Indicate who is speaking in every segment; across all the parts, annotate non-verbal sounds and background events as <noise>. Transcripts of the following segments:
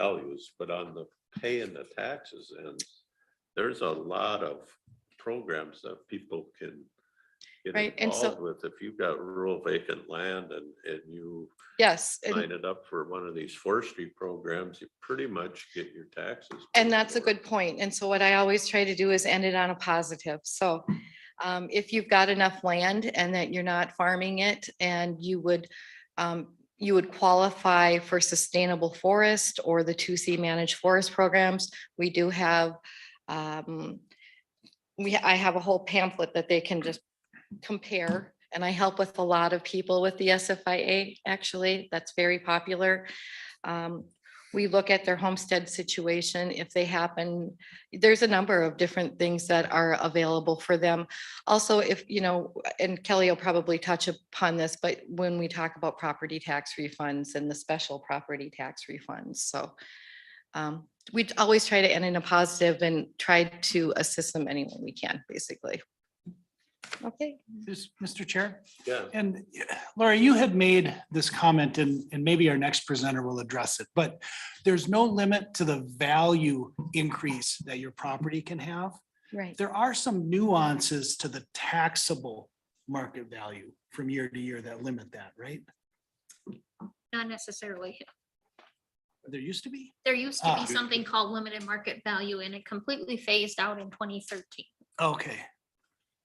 Speaker 1: values, but on the paying the taxes and there's a lot of programs that people can
Speaker 2: Right,
Speaker 1: get
Speaker 2: and so-
Speaker 1: involved with. If you've got rural vacant land and, and you
Speaker 2: Yes, and-
Speaker 1: line it up for one of these forestry programs, you pretty much get your taxes.
Speaker 2: And
Speaker 1: paid
Speaker 2: that's a
Speaker 1: for.
Speaker 2: good point. And so what I always try to do is end it on a positive. So um, if you've got enough land and that you're not farming it and you would, um, you would qualify for sustainable forest or the two C managed forest programs, we do have um, we, I have a whole pamphlet that they can just compare. And I help with a lot of people with the SFIA, actually. That's very popular. Um, we look at their homestead situation, if they happen, there's a number of different things that are available for them. Also, if, you know, and Kelly will probably touch upon this, but when we talk about property tax refunds and the special property tax refunds, so. um, We always try to end in a positive and try to assist them any way we can, basically. Okay,
Speaker 3: This, Mr. Chair,
Speaker 1: Yeah.
Speaker 3: and Laura, you had made this comment and, and maybe our next presenter will address it, but there's no limit to the value increase that your property can have.
Speaker 2: right.
Speaker 3: There are some nuances to the taxable market value from year to year that limit that, right?
Speaker 4: Not necessarily.
Speaker 3: There used to be.
Speaker 4: There used to
Speaker 3: Ah.
Speaker 4: be something called limited market value and it completely phased out in twenty thirteen.
Speaker 3: Okay,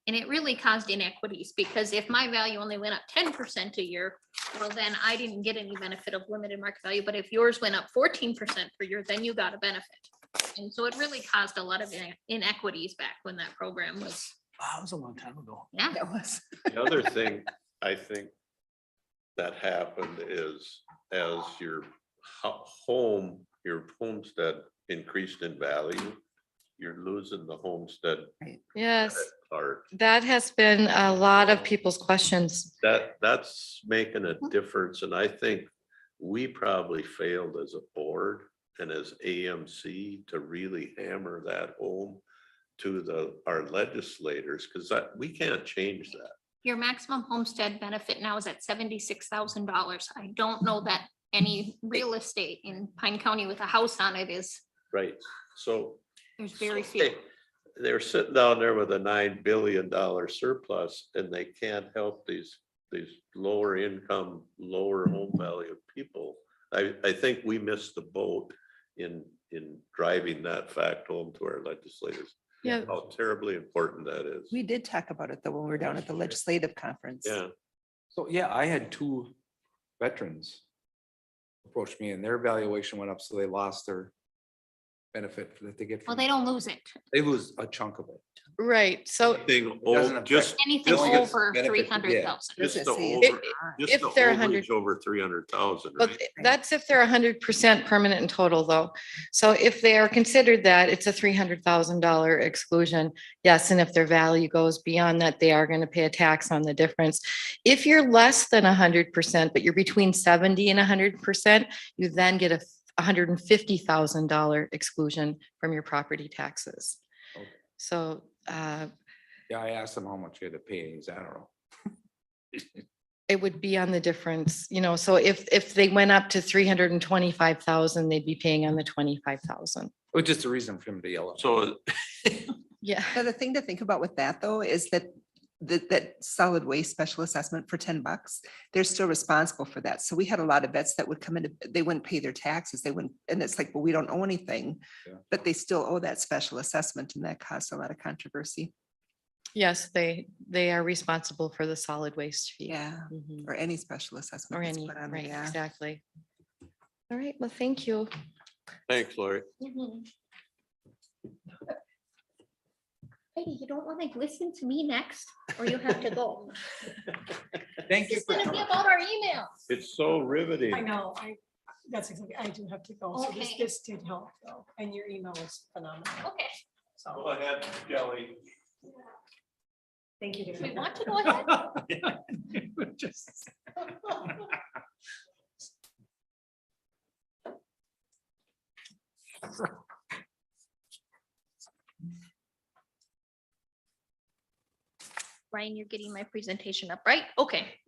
Speaker 4: And it really caused inequities because if my value only went up ten percent a year, well, then I didn't get any benefit of limited market value. But if yours went up fourteen percent per year, then you got a benefit. And so it really caused a lot of ine- inequities back when that program was.
Speaker 3: Wow, that was a long time ago.
Speaker 4: Yeah.
Speaker 3: That was.
Speaker 1: The other thing I think that happened is as your ho- home, your homestead increased in value, you're losing the homestead
Speaker 2: Yes,
Speaker 1: part.
Speaker 2: that has been a lot of people's questions.
Speaker 1: That, that's making a difference, and I think we probably failed as a board and as AMC to really hammer that home to the, our legislators, because that, we can't change that.
Speaker 4: Your maximum homestead benefit now is at seventy-six thousand dollars. I don't know that any real estate in Pine County with a house on it is,
Speaker 1: Right. So
Speaker 4: there's very
Speaker 1: So,
Speaker 4: few.
Speaker 1: hey, They're sitting down there with a nine billion dollar surplus and they can't help these, these lower income, lower home value people. I, I think we missed the boat in, in driving that fact home to our legislators.
Speaker 2: Yeah.
Speaker 1: How terribly important that is.
Speaker 5: We did talk about it though, when we were down at the legislative conference.
Speaker 1: Yeah,
Speaker 6: So, yeah, I had two veterans approach me and their valuation went up, so they lost their benefit that they get.
Speaker 4: Well,
Speaker 6: from-
Speaker 4: they don't lose it.
Speaker 6: They lose a chunk of it.
Speaker 2: Right, so
Speaker 1: Anything
Speaker 6: Doesn't
Speaker 1: old,
Speaker 6: affect-
Speaker 1: just,
Speaker 4: Anything
Speaker 2: Only gets
Speaker 4: over
Speaker 6: benefit,
Speaker 4: three
Speaker 6: yeah.
Speaker 4: hundred thousand.
Speaker 1: just the
Speaker 5: Businesses.
Speaker 1: over, just
Speaker 2: if
Speaker 1: the
Speaker 2: they're 100
Speaker 1: overage over three hundred thousand,
Speaker 2: But
Speaker 1: right?
Speaker 2: th- that's if they're hundred percent permanent and total, though. So if they are considered that, it's a three hundred thousand dollar exclusion. Yes, and if their value goes beyond that, they are gonna pay a tax on the difference. If you're less than hundred percent, but you're between seventy and hundred percent, you then get a hundred and fifty thousand dollar exclusion from your property taxes.
Speaker 6: Okay.
Speaker 2: So, uh,
Speaker 6: Yeah, I asked them how much they had to pay. He's, I don't know.
Speaker 2: it would be on the difference, you know, so if, if they went up to three hundred and twenty-five thousand, they'd be paying on the twenty-five thousand.
Speaker 6: It was just a reason for him to yell. at me.
Speaker 1: So
Speaker 2: Yeah.
Speaker 5: So the thing to think about with that though, is that that, that solid waste special assessment for ten bucks, they're still responsible for that. So we had a lot of vets that would come in, they wouldn't pay their taxes. They wouldn't, and it's like, well, we don't owe anything.
Speaker 6: Yeah.
Speaker 5: But they still owe that special assessment and that caused a lot of controversy.
Speaker 2: <laughs> Yes, they, they are responsible for the solid waste fee.
Speaker 5: Yeah.
Speaker 2: Mhm.
Speaker 5: Or any special assessment.
Speaker 2: Or
Speaker 5: that's
Speaker 2: any,
Speaker 5: put on there,
Speaker 2: right,
Speaker 5: yeah.
Speaker 2: exactly. All right, well, thank you.
Speaker 1: thanks, Lori.
Speaker 4: Heidi, you don't want to listen to me next, or you have to go.
Speaker 1: <laughs>
Speaker 6: Thank you.
Speaker 4: It's
Speaker 6: for
Speaker 4: gonna be
Speaker 6: coming.
Speaker 4: about our emails.
Speaker 1: It's so riveting.
Speaker 7: I know, I, that's exactly, I do have to go, so this,
Speaker 4: Okay.
Speaker 7: this did help though, and your email was phenomenal,
Speaker 4: Okay,
Speaker 7: so,
Speaker 1: Go ahead, Kelly.
Speaker 7: thank you.
Speaker 4: do
Speaker 7: David. <laughs>
Speaker 4: we want to go ahead?
Speaker 3: Just-
Speaker 4: Ryan, you're getting my presentation up, right? Okay.